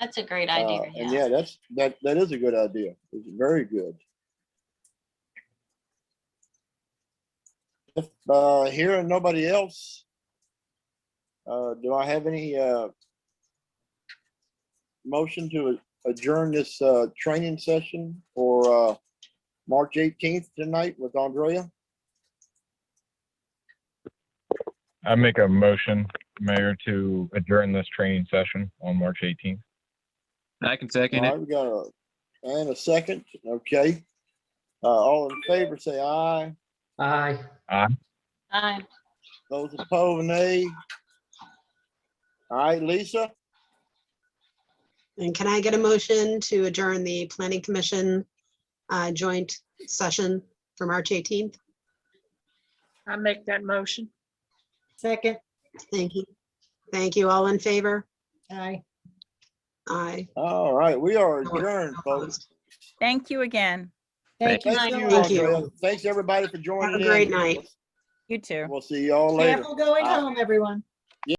That's a great Uh, idea. And yeah, that's, that, that is a good idea. It's very good. If, uh, here and nobody else, uh, do I have any, uh, motion to adjourn this, uh, training session for, uh, March eighteenth tonight with Andrea? I make a motion, Mayor, to adjourn this training session on March 18th. I can All second it. right, we got a, and a second, okay. Uh, all in favor, say aye. Aye. Aye. Those opposed, nay. All right, Lisa, And can I get a motion to adjourn the planning commission uh, joint session for March 18th? I make that motion. Second. Thank you. Thank you. All in favor? Aye. Aye. all right, we are adjourned, folks. Opposed. Thank you again. Thank you. Thank you, Thank you. Andrea. Thanks, everybody, for joining in. Have a great night. You too. We'll see y'all later. Careful going home, everyone.